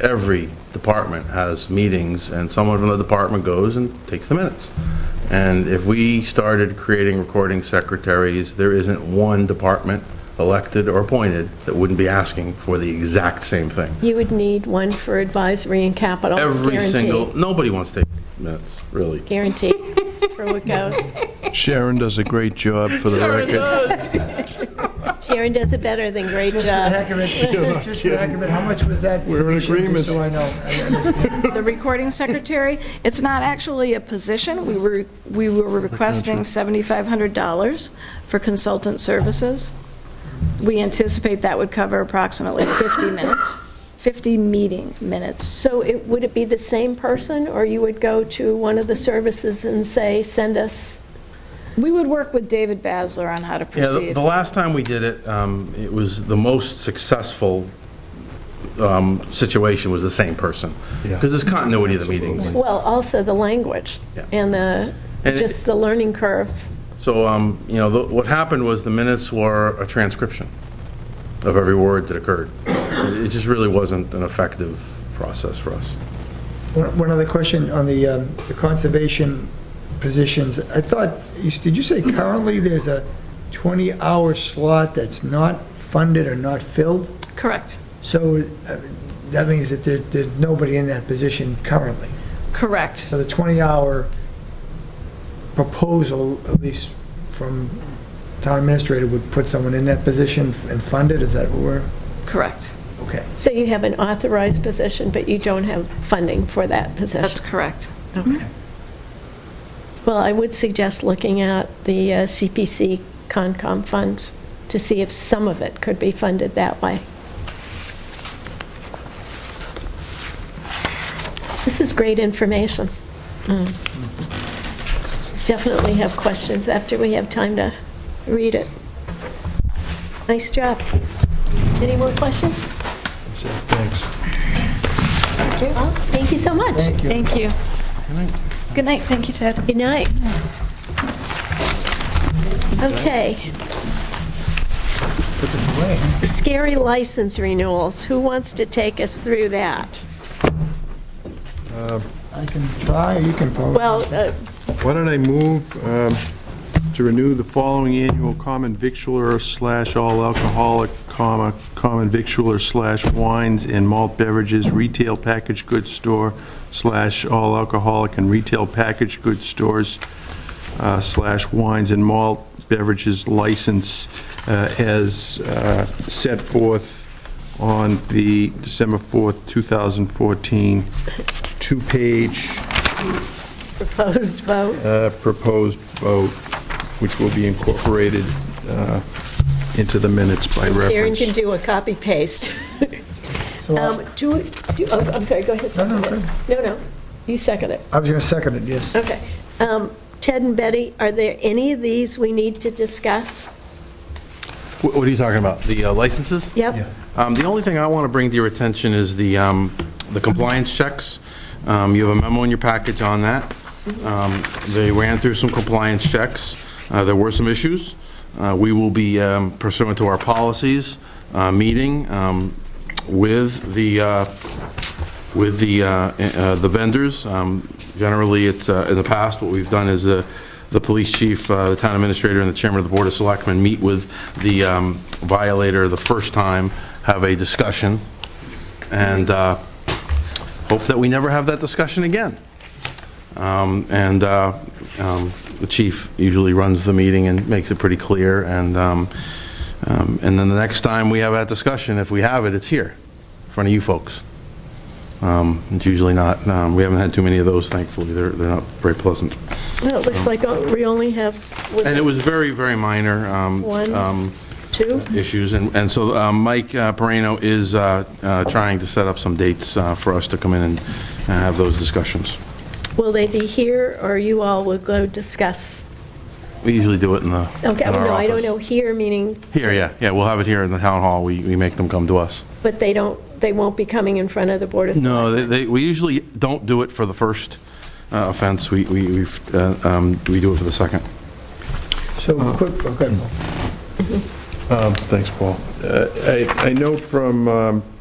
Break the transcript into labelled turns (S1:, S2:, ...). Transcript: S1: every department has meetings, and someone from the department goes and takes the minutes. And if we started creating recording secretaries, there isn't one department, elected or appointed, that wouldn't be asking for the exact same thing.
S2: You would need one for advisory and capital.
S1: Every
S2: guaranteed.
S1: single, nobody wants to take minutes, really.
S2: Guaranteed, for what goes.
S3: Sharon does a great job for the record.
S2: Sharon does it better than great
S4: Just for the
S2: job.
S4: heck of it, just for the heck of it, how much was that?
S3: We're in
S4: position,
S3: agreement.
S4: just So I know. I understand.
S5: the recording secretary. It's not actually a position. We were, we were requesting $7,500 for consultant services. We anticipate that would cover approximately 50 minutes, 50 meeting minutes.
S2: So it, would it be the same person, or you would go to one of the services and say, send us?
S5: We would work with David Basler on how to
S1: Yeah, the-
S5: proceed.
S1: the last time we did it, um, it was the most successful um, situation was the same person.
S3: Yeah.
S1: Because there's continuity of the meetings.
S2: Well, also the language
S1: Yeah.
S2: and the,
S1: And it-
S2: just the learning curve.
S1: So, um, you know, the- what happened was the minutes were a transcription of every word that occurred. It it just really wasn't an effective process for us.
S4: One one other question on the, um, the conservation positions. I thought, you s- did you say currently there's a 20-hour slot that's not funded or not filled?
S5: Correct,
S4: So uh, that means that there, there's nobody in that position currently.
S5: correct.
S4: So the 20-hour proposal, at least from town administrator, would put someone in that position and fund it? Is that what we're,
S5: Correct.
S4: okay.
S2: So you have an authorized position, but you don't have funding for that
S5: That's
S2: position.
S5: correct.
S2: Well, I would suggest looking at the uh, CPC Concom Fund to see if some of it could be funded that way. This is great information. Mm. Definitely have questions after we have time to read it. Nice job. Any more questions?
S3: So, Thanks.
S2: Well, Thank you so much.
S5: Thank you. Good night, thank you, Ted.
S2: Good night. Okay. Scary license renewals. Who wants to take us through that?
S4: I can try, or you can pose.
S2: Well, uh,
S3: Why don't I move um, to renew the following annual common victualler slash all alcoholic, comma, common victualler slash wines and malt beverages retail packaged goods store slash all alcoholic and retail packaged goods stores uh, slash wines and malt beverages license uh, as uh, set forth on the December 4th, 2014, two-page
S2: proposed vote.
S3: uh, proposed vote, which will be incorporated uh, into the minutes by
S2: Karen can
S3: reference.
S2: do a copy paste.
S4: So I'll-
S2: Um, Do, do- oh, I'm sorry, go ahead,
S4: No, no,
S2: second it. No, no, you second it.
S4: I was going to second it, yes.
S2: Okay. Um, Ted and Betty, are there any of these we need to discuss?
S1: Wh- What are you talking about? The uh, licenses?
S2: Yep.
S1: Um, The only thing I want to bring to your attention is the um, the compliance checks. Um, You have a memo in your package on that. Um, They ran through some compliance checks. Uh, There were some issues. Uh, We will be um, pursuant to our policies, uh, meeting um, with the uh, with the, uh, uh, the vendors. Um, Generally, it's, uh, in the past, what we've done is the, the police chief, uh, the town administrator, and the chairman of the board of selectmen meet with the um, violator the first time, have a discussion, and uh, hope that we never have that discussion again. Um, And uh, um, the chief usually runs the meeting and makes it pretty clear, and, um, um, and then the next time we have that discussion, if we have it, it's here, in front of you folks. Um, It's usually not, um, we haven't had too many of those, thankfully, they're, they're not very pleasant.
S2: Well, it looks like oh, we only have, was
S1: And it
S2: it
S1: was very, very minor um,
S2: One.
S1: um,
S2: two?
S1: issues, and, and so um, Mike uh, Perino is uh, uh, trying to set up some dates uh, for us to come in and uh, have those discussions.
S2: Will they be here, or you all will go discuss?
S1: We usually do it in the, in
S2: Okay,
S1: our
S2: no, I don't
S1: office.
S2: know here, meaning,
S1: Here, yeah, yeah, we'll have it here in the town hall, we, we make them come to us.
S2: but they don't, they won't be coming in front of the Board of
S1: No,
S2: Selectmen?
S1: they, they, we usually don't do it for the first uh, offense, we, we, we've, uh, um, we do it for the second.
S4: So quick, okay.
S3: Um, Thanks, Paul. Uh, I I note from um,